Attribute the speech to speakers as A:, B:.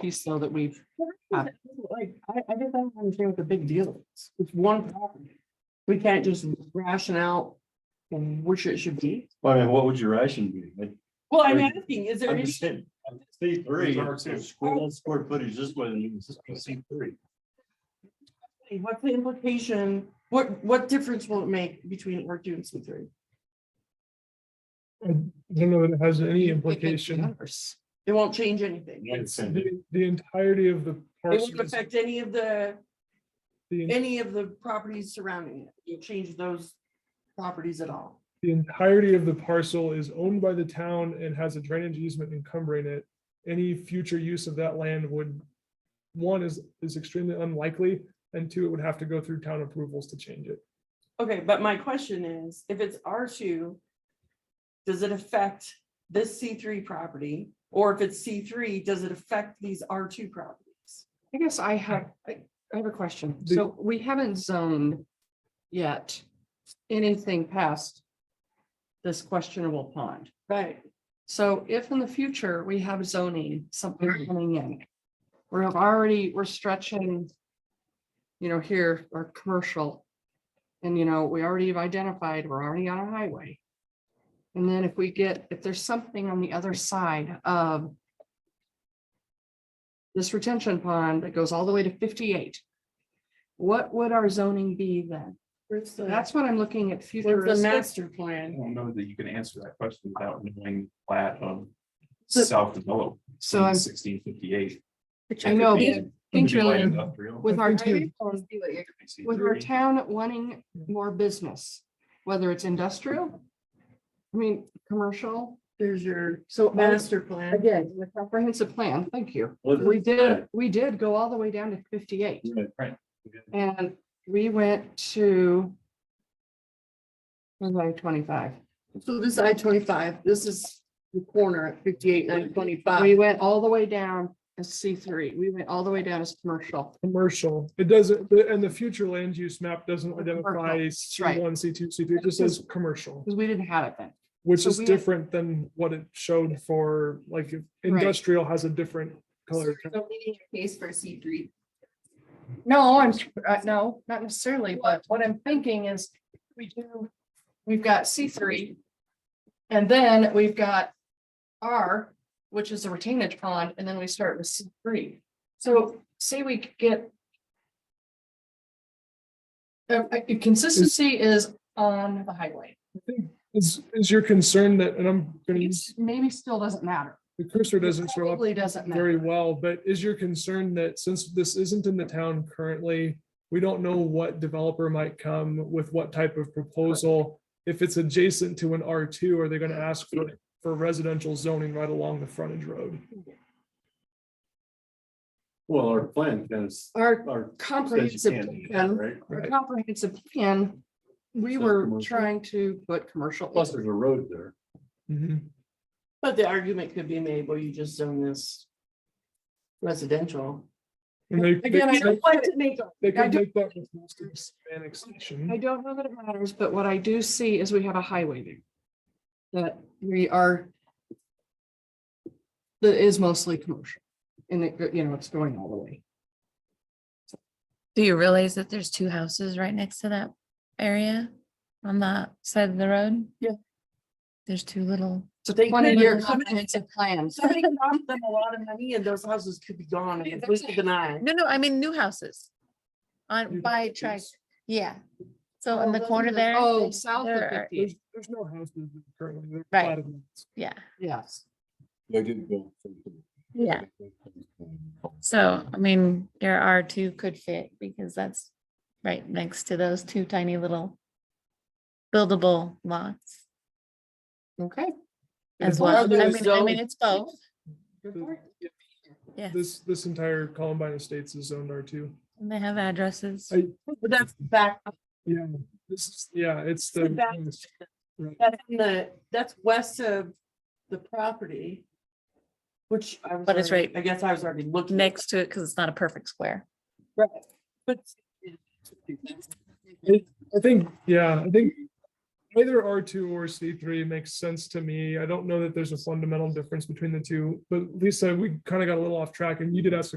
A: piece though that we've, Uh,
B: Like, I, I just don't understand what the big deal is. It's one property. We can't just ration out which it should be.
C: Well, I mean, what would your ration be? Like,
B: Well, I'm
C: Right.
B: asking, is there
C: I'm
B: any,
C: just saying, I'm C three,
D: These are
C: it's
D: too.
C: a square one square footage this way, and it's C three.
B: what's the implication? What, what difference will it make between R two and C three?
D: I don't know that it has any implication.
B: It won't change anything.
D: The the entirety of the
B: It won't
D: parcels,
B: affect any of the,
D: the
B: any of the properties surrounding it. It change those properties at all.
D: the entirety of the parcel is owned by the town and has a drainage easement encumbering it. Any future use of that land would, one is, is extremely unlikely, and two, it would have to go through town approvals to change it.
B: Okay, but my question is, if it's R two, does it affect this C three property? Or if it's C three, does it affect these R two properties?
A: I guess I have, I I have a question.
D: Do-
A: So we haven't zoned yet anything past this questionable pond.
B: Right.
A: So if in the future we have zoning, something coming in, we're already, we're stretching, you know, here, our commercial. And, you know, we already have identified, we're already on a highway. And then if we get, if there's something on the other side of this retention pond that goes all the way to fifty-eight, what would our zoning be then?
B: Where's the,
A: That's what I'm looking at
B: where's the
A: futuristic.
B: master plan?
E: don't know that you can answer that question without knowing plat of
A: So-
E: South Develop.
A: So I'm,
E: Sixteen fifty-eight.
A: I know, but I think really with our.
D: I think
A: With our town wanting more business, whether it's industrial, I mean, commercial,
B: There's your
A: so. all-
B: master plan.
A: Again, the comprehensive plan, thank you. We did, we did go all the way down to fifty-eight
E: Right.
A: and we went to twenty-five.
B: So this I twenty-five, this is the corner at fifty-eight, nine
A: We
B: twenty-five.
A: went all the way down as C three. We went all the way down as commercial.
D: Commercial, it doesn't, the- and the future land use map doesn't identify C
A: right.
D: one, C two, C three, it just says commercial.
A: Because we didn't have it then.
D: Which
A: So
D: is
A: we-
D: different than what it showed for, like, if industrial has a different color.
F: So we need a case for C three.
A: No, I'm, uh, no, not necessarily, but what I'm thinking is we do, we've got C three. And then we've got R, which is a retainage pond, and then we start with C three. So say we could get. Uh, uh, consistency is on the highway.
D: Is, is your concern that, and I'm gonna use,
A: It's Maybe still doesn't matter.
D: the cursor doesn't show up
A: Probably doesn't
D: very
A: matter.
D: well, but is your concern that since this isn't in the town currently, we don't know what developer might come with what type of proposal? If it's adjacent to an R two, are they gonna ask for, for residential zoning right along the frontage road?
C: Well, our plan is,
A: Our
C: our. says you
A: comprehensive
C: can't do that,
A: plan,
C: Right?
A: our
D: Right.
A: comprehensive plan, we
C: Says
A: were
C: commercial.
A: trying to put commercial.
C: Plus, there's a road there.
D: Mhm.
B: But the argument could be made, well, you just zone this residential.
D: And they- they-
A: Again, I don't like to make
D: They
A: I
D: could
A: do-
D: make that with most of this annexation.
A: I don't know that it matters, but what I do see is we have a highway there. That we are. That is mostly commercial. And it, go- you know, it's going all the way.
G: Do you realize that there's two houses right next to that area on that side of the road?
B: Yeah.
G: There's two little.
A: It's a
B: They could-
A: twenty year
B: they're coming-
A: comprehensive plan.
B: Somebody cost them a lot of money and those houses could be gone and completely denied.
G: No, no, I mean new houses.
D: New
G: On by
D: houses.
G: track, yeah. So
A: Oh,
G: in the
A: those are
G: corner
A: the-
G: there.
A: Oh,
G: there-
A: south
G: there
A: of
G: are-
A: fifty,
D: There's no houses currently. they're
G: Right.
D: platted lots.
G: Yeah,
A: yes.
C: They did go.
G: yeah. So, I mean, there are two could fit because that's right next to those two tiny little buildable lots
A: Okay.
G: as
D: As
G: well. I
B: long as
G: mean, I
B: those-
G: mean, it's both.
D: The-
G: Yes.
D: This, this entire Columbine Estates is zoned R two.
G: And they have addresses.
D: I-
B: But that's back,
D: Yeah, this is, yeah, it's
B: So
D: the,
B: that's- that's in the, that's west of the property. Which I was.
G: But it's
B: already-
G: right
B: I guess I was already looking.
G: next to it because it's not a perfect square.
B: Right, But
D: I think, yeah, I think Either R two or C three makes sense to me. I don't know that there's a fundamental difference between the two, but Lisa, we kind of got a little off track and you did ask a